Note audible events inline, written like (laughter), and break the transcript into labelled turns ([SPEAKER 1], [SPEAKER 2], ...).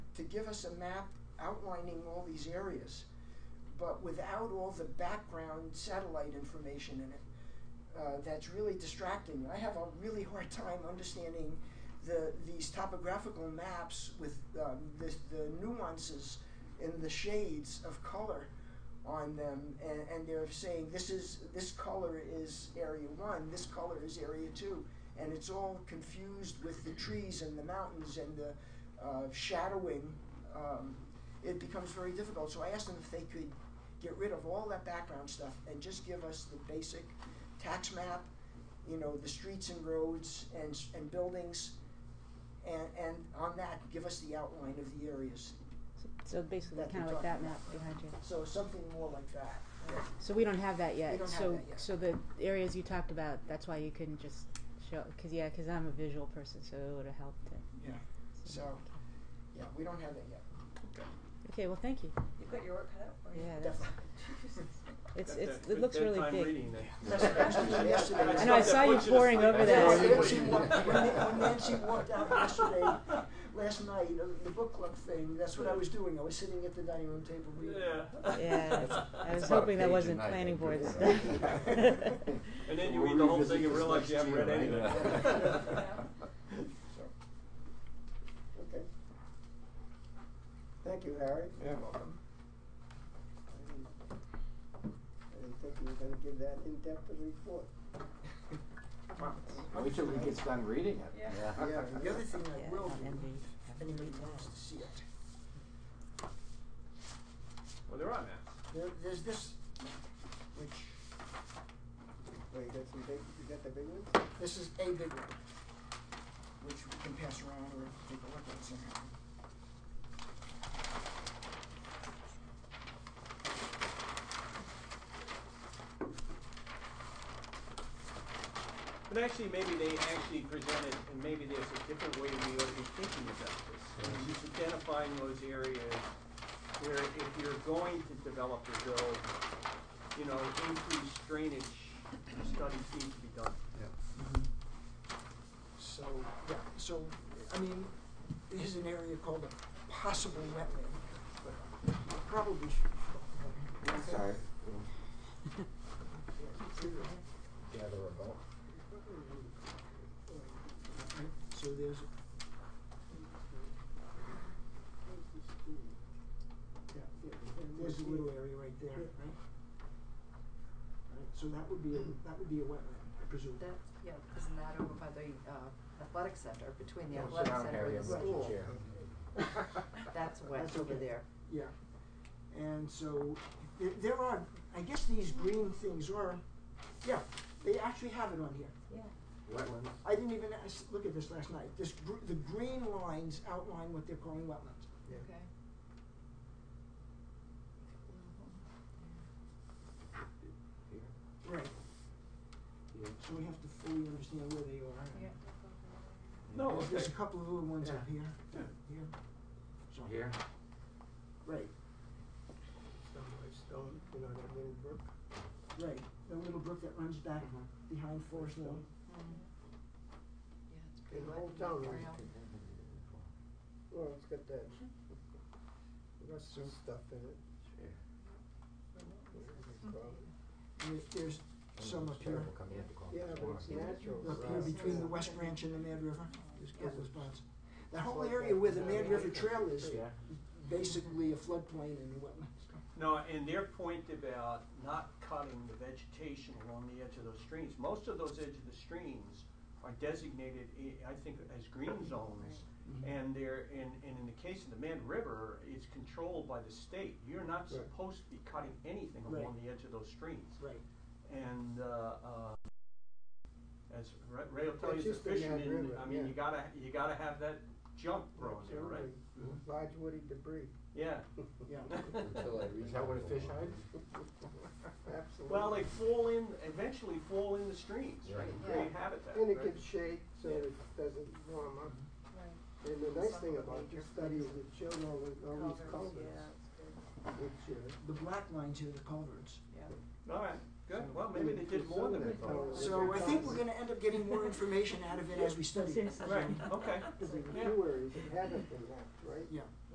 [SPEAKER 1] to give us a map outlining all these areas, but without all the background satellite information in it. Uh, that's really distracting. I have a really hard time understanding the these topographical maps with um, the, the nuances and the shades of color on them, and, and they're saying this is this color is area one, this color is area two, and it's all confused with the trees and the mountains and the uh, shadowing. Um, it becomes very difficult. So I asked them if they could get rid of all that background stuff and just give us the basic tax map, you know, the streets and roads and, s- and buildings, and, and on that, give us the outline of the areas.
[SPEAKER 2] So basically,
[SPEAKER 1] That
[SPEAKER 2] kind of
[SPEAKER 1] you're
[SPEAKER 2] like that
[SPEAKER 1] talking
[SPEAKER 2] map
[SPEAKER 1] about.
[SPEAKER 2] behind you.
[SPEAKER 1] So something more like that.
[SPEAKER 2] So we don't have that yet.
[SPEAKER 1] We don't have
[SPEAKER 2] so
[SPEAKER 1] that yet.
[SPEAKER 2] so the areas you talked about, that's why you couldn't just show. Cause yeah, cause I'm a visual person, so it would have helped. To,
[SPEAKER 1] Yeah. So, yeah, we don't have that yet.
[SPEAKER 2] Okay, well, thank you.
[SPEAKER 3] You've got your work cut out for you.
[SPEAKER 2] Yeah, that's, it's
[SPEAKER 4] That-
[SPEAKER 2] it's
[SPEAKER 4] that-
[SPEAKER 2] it looks
[SPEAKER 4] that
[SPEAKER 2] really
[SPEAKER 4] time
[SPEAKER 2] big.
[SPEAKER 4] reading that-
[SPEAKER 1] (laughs) That's what I was doing yesterday.
[SPEAKER 4] That's
[SPEAKER 1] I know, I
[SPEAKER 4] stuff
[SPEAKER 1] saw
[SPEAKER 4] that
[SPEAKER 1] you
[SPEAKER 4] puts to
[SPEAKER 2] poring
[SPEAKER 4] sleep.
[SPEAKER 2] over
[SPEAKER 1] When
[SPEAKER 4] That's
[SPEAKER 2] that.
[SPEAKER 4] stuff
[SPEAKER 1] Nancy
[SPEAKER 4] puts you to
[SPEAKER 1] walked,
[SPEAKER 4] sleep.
[SPEAKER 1] when Nan- when Nancy walked out yesterday, last night, uh, the book club thing, that's what I was doing. I was sitting at the dining room table reading.
[SPEAKER 4] Yeah.
[SPEAKER 2] Yeah,
[SPEAKER 5] (laughs)
[SPEAKER 2] I was
[SPEAKER 5] about a
[SPEAKER 2] hoping that
[SPEAKER 5] page a
[SPEAKER 2] wasn't
[SPEAKER 5] night,
[SPEAKER 2] planning
[SPEAKER 5] I
[SPEAKER 2] board
[SPEAKER 5] think.
[SPEAKER 2] stuff.
[SPEAKER 4] (laughs) And then you
[SPEAKER 5] We'll
[SPEAKER 4] read the whole
[SPEAKER 5] revisit
[SPEAKER 4] thing and
[SPEAKER 5] this
[SPEAKER 4] realize you
[SPEAKER 5] next
[SPEAKER 4] haven't read
[SPEAKER 5] year,
[SPEAKER 4] anything. (laughs)
[SPEAKER 5] right?
[SPEAKER 1] So, okay. Thank you, Harry. You're welcome. I didn't- I didn't think you were gonna give that in-depth a report.
[SPEAKER 5] Wait till he gets done reading it.
[SPEAKER 3] Yeah.
[SPEAKER 1] Yeah, the other thing
[SPEAKER 2] Yeah,
[SPEAKER 1] I will
[SPEAKER 2] not
[SPEAKER 1] do,
[SPEAKER 2] envy.
[SPEAKER 1] if anybody wants to see it,
[SPEAKER 4] Well, there are maps.
[SPEAKER 1] there, there's this, which,
[SPEAKER 6] Wait, you got some big, you got the big ones?
[SPEAKER 1] this is a big one, which we can pass around or take a look at somehow.
[SPEAKER 4] But actually, maybe they actually presented, and maybe there's a different way we ought to be thinking about this.
[SPEAKER 5] Mhm.
[SPEAKER 4] Just identifying those areas where if you're going to develop or build, you know, increased drainage studies need to be done.
[SPEAKER 1] So, yeah, so, I mean, here's an area called a possible wetland, but I probably should.
[SPEAKER 5] I'm Sorry.
[SPEAKER 2] (laughs)
[SPEAKER 6] Gather a vote.
[SPEAKER 1] So there's. Yeah, yeah, there's a little area right there, right? Right, so that would be, a that would be a wetland, I presume.
[SPEAKER 3] That, yeah, isn't that over by the uh, athletic center, between the
[SPEAKER 6] Yeah,
[SPEAKER 3] athletic
[SPEAKER 6] sit down,
[SPEAKER 3] center
[SPEAKER 6] Harry,
[SPEAKER 3] and the
[SPEAKER 6] I'll
[SPEAKER 3] school?
[SPEAKER 6] let you chair. (laughs)
[SPEAKER 3] That's wet
[SPEAKER 1] That's
[SPEAKER 3] over
[SPEAKER 1] okay.
[SPEAKER 3] there.
[SPEAKER 1] Yeah, and so th- there are, I guess these green things are, yeah, they actually have it on here.
[SPEAKER 3] Yeah.
[SPEAKER 6] Wetlands.
[SPEAKER 1] I didn't even ask, look at this last night. This gr- the green lines outline what they're calling wetlands.
[SPEAKER 6] Yeah.
[SPEAKER 3] Okay.
[SPEAKER 6] Here,
[SPEAKER 1] Right.
[SPEAKER 6] here.
[SPEAKER 1] So we have to fully understand where they are. and-
[SPEAKER 3] Yeah.
[SPEAKER 4] No,
[SPEAKER 1] There's- There's a
[SPEAKER 4] okay.
[SPEAKER 1] couple of little ones up here.
[SPEAKER 4] Yeah.
[SPEAKER 1] Here. So
[SPEAKER 5] Here?
[SPEAKER 1] right,
[SPEAKER 6] Stone by stone, you know, that little brook.
[SPEAKER 1] right. The little brook that runs back behind Forest Lawn.
[SPEAKER 3] Mhm. Yeah, it's pretty
[SPEAKER 6] And the
[SPEAKER 3] wet.
[SPEAKER 6] whole
[SPEAKER 3] in that
[SPEAKER 6] town runs
[SPEAKER 3] trail.
[SPEAKER 6] Well, it's got that, it got some stuff in it.
[SPEAKER 1] There- There's some up here.
[SPEAKER 6] Yeah, but it's natural.
[SPEAKER 1] Up here between the West Branch and the Mad River. There's
[SPEAKER 6] Yeah.
[SPEAKER 1] those ponds. That whole area where the Mad River Trail is
[SPEAKER 5] Yeah.
[SPEAKER 1] basically a floodplain and a wetland.
[SPEAKER 4] No, and their point about not cutting the vegetation along the edge of those streams, most of those edge of the streams are designated, eh, i- I think, as green zones. And they're, and, and in the case of the Mad River, it's controlled by the state. You're not
[SPEAKER 6] Right.
[SPEAKER 4] supposed to be cutting anything along the edge of those streams.
[SPEAKER 1] Right.
[SPEAKER 4] And, uh, uh, as Ra- Ray will tell you,
[SPEAKER 6] It's
[SPEAKER 4] as a
[SPEAKER 6] just the Mad
[SPEAKER 4] fisherman,
[SPEAKER 6] River,
[SPEAKER 4] I mean,
[SPEAKER 6] yeah.
[SPEAKER 4] you gotta, you gotta have that junk thrown there, right? Mm-hmm.
[SPEAKER 6] Absolutely. Large woody
[SPEAKER 4] (laughs)
[SPEAKER 6] debris.
[SPEAKER 4] Yeah.
[SPEAKER 1] Yeah.
[SPEAKER 5] (laughs)
[SPEAKER 4] (laughs)
[SPEAKER 5] Is that what a fish hides?
[SPEAKER 6] Absolutely.
[SPEAKER 4] Well, they fall in, eventually fall in the streams, right?
[SPEAKER 5] Right.
[SPEAKER 4] Create habitat.
[SPEAKER 6] And it
[SPEAKER 4] right?
[SPEAKER 6] gives shade, so
[SPEAKER 4] Yeah.
[SPEAKER 6] it doesn't warm up.
[SPEAKER 1] Mm-hmm.
[SPEAKER 3] Right.
[SPEAKER 6] And the nice thing about this study is it showed all the, all these
[SPEAKER 3] Culverts,
[SPEAKER 6] culverts,
[SPEAKER 3] yeah, it's good.
[SPEAKER 6] which, uh,
[SPEAKER 1] The black lines here are the culverts.
[SPEAKER 4] All right, good, well,
[SPEAKER 6] So-
[SPEAKER 4] maybe they did more than we
[SPEAKER 6] Some of
[SPEAKER 4] thought.
[SPEAKER 6] that
[SPEAKER 1] So I think we're gonna end up getting more information out of it as we study it.
[SPEAKER 4] Right, okay.
[SPEAKER 6] Because in
[SPEAKER 4] Yeah.
[SPEAKER 6] two areas, it haven't been mapped, right?
[SPEAKER 1] Yeah.